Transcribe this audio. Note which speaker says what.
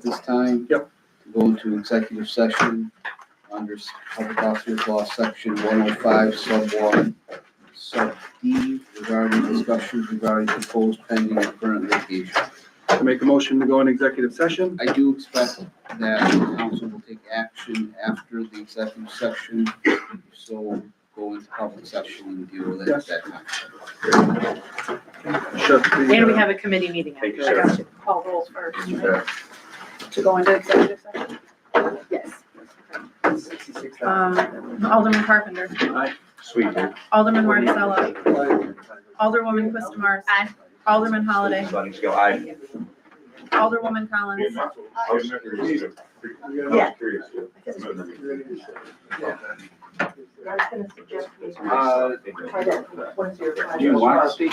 Speaker 1: at this time.
Speaker 2: Yep.
Speaker 1: To go into executive session under s- public officers law, section one oh five, sub one, sub D, regarding discussions regarding proposed pending and current litigation.
Speaker 2: I make a motion to go in executive session.
Speaker 1: I do expect that the council will take action after the executive session, so go into public session and deal with it at that time.
Speaker 2: Shut the.
Speaker 3: And we
Speaker 2: uh,
Speaker 3: have a committee meeting
Speaker 4: Thank you,
Speaker 3: after.
Speaker 4: Sarah.
Speaker 3: I got you. Call rolls first,
Speaker 4: You
Speaker 3: right?
Speaker 4: bet.
Speaker 3: To go into executive session? Yes. Um, Alderman Carpenter.
Speaker 4: Sweet, man.
Speaker 3: Alderman Marticello. Alderwoman Quistamars. Aye. Alderman Holliday.
Speaker 4: Buddies go, I.
Speaker 3: Alderwoman Collins.
Speaker 5: Yeah.
Speaker 6: I was gonna suggest we
Speaker 1: Uh,
Speaker 2: Uh,
Speaker 6: try that one zero five.
Speaker 1: do you want to speak